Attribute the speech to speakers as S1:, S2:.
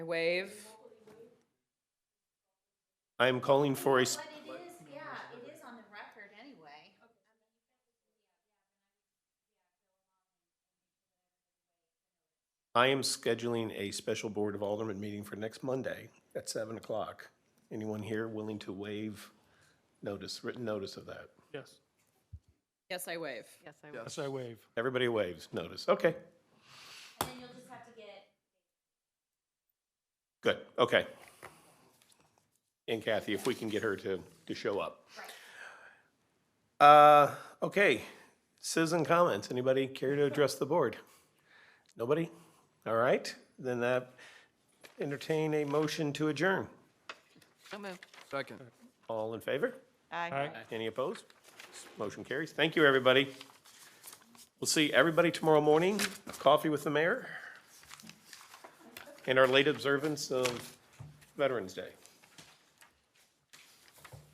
S1: waive.
S2: I am calling for a, s-
S3: But it is, yeah, it is on the record anyway.
S2: I am scheduling a special Board of Aldermen meeting for next Monday at seven o'clock. Anyone here willing to waive notice, written notice of that?
S4: Yes.
S1: Yes, I waive.
S5: Yes, I
S4: Yes, I waive.
S2: Everybody waives notice. Okay,
S3: And then you'll just have to get
S2: good, okay. And Kathy, if we can get her to, to show up. Uh, okay, citizen comments. Anybody care to address the board? Nobody? All right, then that entertain a motion to adjourn.
S5: So moved.
S4: Second.
S2: All in favor?
S5: Aye.
S2: Any opposed? Motion carries. Thank you, everybody. We'll see everybody tomorrow morning, coffee with the mayor, and our late observance of Veterans Day.